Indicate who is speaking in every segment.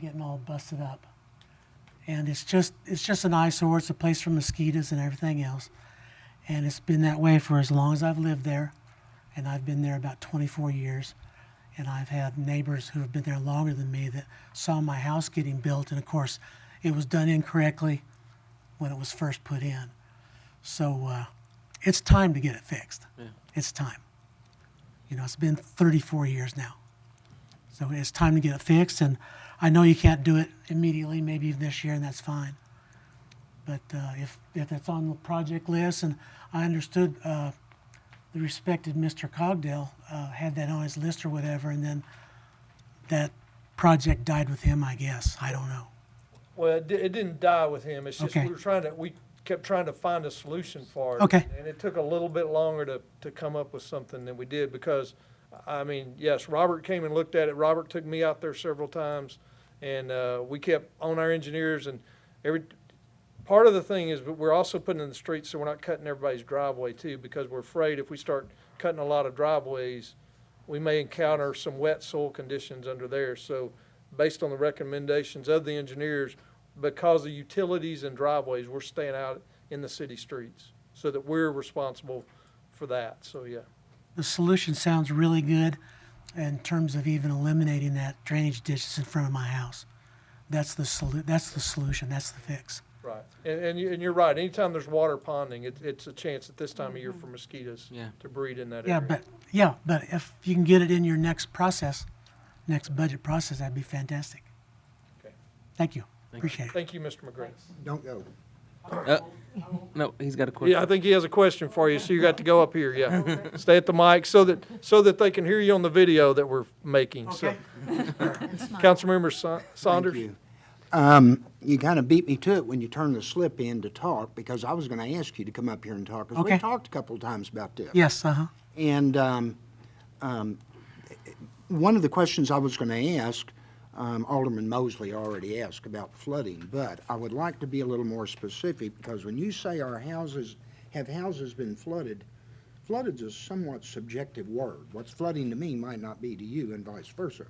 Speaker 1: getting all busted up. And it's just, it's just an eyesore. It's a place for mosquitoes and everything else. And it's been that way for as long as I've lived there. And I've been there about 24 years. And I've had neighbors who have been there longer than me that saw my house getting built. And of course, it was done incorrectly when it was first put in. So uh, it's time to get it fixed. It's time. You know, it's been 34 years now. So it's time to get it fixed, and I know you can't do it immediately, maybe even this year, and that's fine. But uh, if, if that's on the project list, and I understood uh, the respected Mr. Cogdell uh, had that on his list or whatever, and then that project died with him, I guess. I don't know.
Speaker 2: Well, it, di- it didn't die with him. It's just
Speaker 1: Okay.
Speaker 2: we were trying to, we kept trying to find a solution for it.
Speaker 1: Okay.
Speaker 2: And it took a little bit longer to, to come up with something than we did because, I mean, yes, Robert came and looked at it. Robert took me out there several times and, uh, we kept on our engineers and every, part of the thing is, but we're also putting in the streets so we're not cutting everybody's driveway too because we're afraid if we start cutting a lot of driveways, we may encounter some wet soil conditions under there. So based on the recommendations of the engineers, because of utilities and driveways, we're staying out in the city streets so that we're responsible for that. So, yeah.
Speaker 1: The solution sounds really good in terms of even eliminating that drainage ditch that's in front of my house. That's the solu- that's the solution, that's the fix.
Speaker 2: Right. And, and you, and you're right. Anytime there's water ponding, it, it's a chance at this time of year for mosquitoes
Speaker 3: Yeah.
Speaker 2: to breed in that area.
Speaker 1: Yeah, but, yeah, but if you can get it in your next process, next budget process, that'd be fantastic.
Speaker 2: Okay.
Speaker 1: Thank you, appreciate it.
Speaker 2: Thank you, Mr. McGrath.
Speaker 4: Don't go.
Speaker 3: Uh, no, he's got a question.
Speaker 2: Yeah, I think he has a question for you, so you got to go up here, yeah. Stay at the mic so that, so that they can hear you on the video that we're making, so. Councilmember Sa- Saunders?
Speaker 4: Thank you. Um, you kind of beat me to it when you turned the slip in to talk, because I was going to ask you to come up here and talk, because we
Speaker 1: Okay.
Speaker 4: talked a couple of times about this.
Speaker 1: Yes, uh-huh,
Speaker 4: And um, um, one of the questions I was going to ask, um, Alderman Mosley already asked about flooding, but I would like to be a little more specific because when you say our houses, have houses been flooded, flooded is a somewhat subjective word. What's flooding to me might not be to you and vice versa.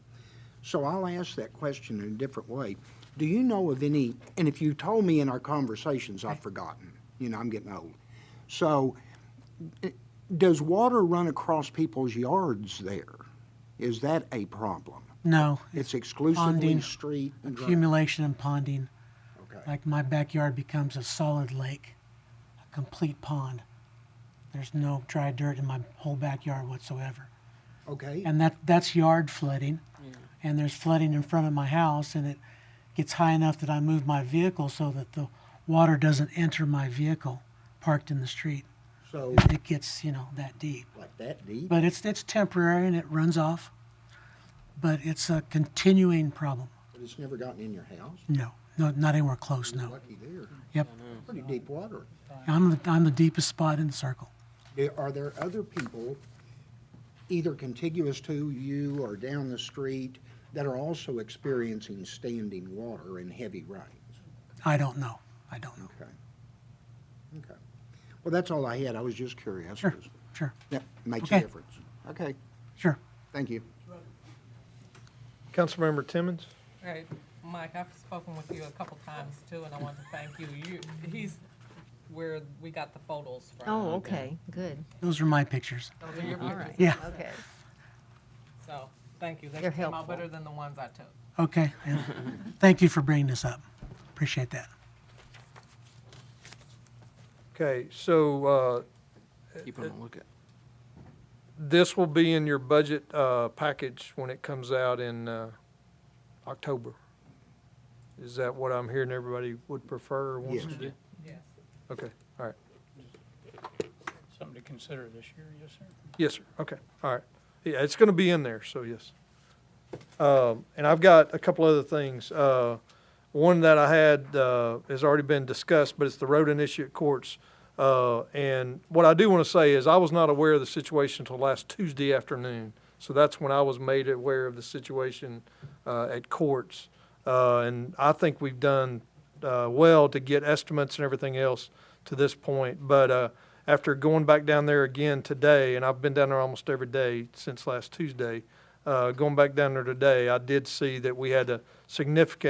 Speaker 4: So I'll ask that question in a different way. Do you know of any, and if you told me in our conversations, I've forgotten. You know, I'm getting old. So does water run across people's yards there? Is that a problem?
Speaker 1: no,
Speaker 4: It's exclusively
Speaker 1: Ponding.
Speaker 4: street and drain?
Speaker 1: accumulation and ponding,
Speaker 4: Okay.
Speaker 1: like my backyard becomes a solid lake, a complete pond. There's no dry dirt in my whole backyard whatsoever.
Speaker 4: Okay,
Speaker 1: and that that's yard flooding and there's flooding in front of my house and it gets high enough that i move my vehicle so that the water doesn't enter my vehicle parked in the street
Speaker 4: so
Speaker 1: it gets you know that deep
Speaker 4: like that deep?
Speaker 1: but it's it's temporary and it runs off but it's a continuing problem
Speaker 4: But it's never gotten in your house?
Speaker 1: no no not anywhere close
Speaker 4: You're
Speaker 1: no
Speaker 4: Lucky there.
Speaker 1: yep
Speaker 4: Pretty deep water.
Speaker 1: i'm the, i'm the deepest spot in the circle
Speaker 4: There- Are there other people, either contiguous to you or down the street, that are also experiencing standing water and heavy rains?
Speaker 1: i don't know i don't know
Speaker 4: Okay. Okay. Well, that's all I had. I was just curious.
Speaker 1: sure sure
Speaker 4: That makes a
Speaker 1: Okay.
Speaker 4: difference. Okay,
Speaker 1: sure
Speaker 4: thank you.
Speaker 2: Councilmember Timmons?
Speaker 5: Right, Mike, I've spoken with you a couple times too, and I want to thank you. You, he's where we got the photos from.
Speaker 6: Oh, okay, good,
Speaker 1: those are my pictures
Speaker 5: Those are your
Speaker 6: all
Speaker 5: pictures,
Speaker 6: right.
Speaker 1: yeah
Speaker 6: Okay.
Speaker 5: so, thank you. They
Speaker 6: They're
Speaker 5: came out
Speaker 6: helpful.
Speaker 5: better than the ones I took.
Speaker 1: Okay, and thank you for bringing this up. Appreciate that.
Speaker 2: Okay, so, uh,
Speaker 3: Keep him on lookout.
Speaker 2: this will be in your budget, uh, package when it comes out in, uh, October. Is that what I'm hearing everybody would prefer or wants to
Speaker 4: Yes.
Speaker 2: do?
Speaker 5: Yes.
Speaker 2: Okay, all right.
Speaker 7: something to consider this year, yes, sir.
Speaker 2: Yes, sir. Okay, all right. Yeah, it's gonna be in there, so yes. Um, and I've got a couple other things. Uh, one that I had, uh, has already been discussed, but it's the road initiate courts. Uh, and what I do wanna say is I was not aware of the situation until last Tuesday afternoon. So that's when I was made aware of the situation, uh, at courts. Uh, and I think we've done, uh, well to get estimates and everything else to this point. But, uh, after going back down there again today, and I've been down there almost every day since last Tuesday, uh, uh, going back down there today, I did see that we had a significant